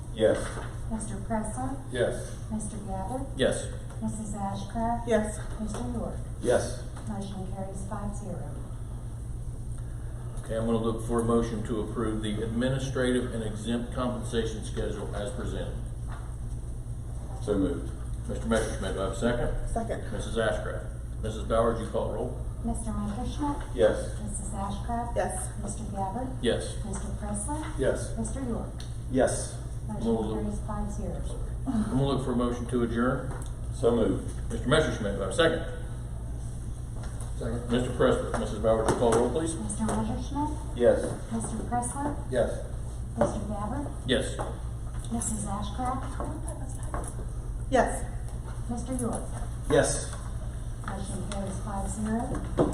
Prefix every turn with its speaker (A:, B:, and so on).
A: Yes.
B: Mr. Pressler,
A: Yes.
B: Mr. Gabbard,
C: Yes.
B: Mrs. Ashcraft.
D: Yes.
B: Mr. York.
A: Yes.
B: Motion carries five zero.
C: Okay, I'm gonna look for a motion to approve the administrative and exempt compensation schedule as presented.
A: So moved.
C: Mr. Messerschmidt, do I have a second?
D: Second.
C: Mrs. Ashcraft? Mrs. Bowers, you call roll?
B: Mr. Messerschmidt.
A: Yes.
B: Mrs. Ashcraft.
D: Yes.
B: Mr. Gabbard.
C: Yes.
B: Mr. Pressler.
A: Yes.
B: Mr. York.
A: Yes.
C: Move.
B: Motion carries five zero.
C: I'm gonna look for a motion to adjourn.
A: So moved.
C: Mr. Messerschmidt, do I have a second? Second. Mr. Pressler, Mrs. Bowers, you call roll, please?
B: Mr. Messerschmidt.
A: Yes.
B: Mr. Pressler.
A: Yes.
B: Mr. Gabbard.
C: Yes.
B: Mrs. Ashcraft.
D: Yes.
B: Mr. York.
A: Yes.
B: Motion carries five zero.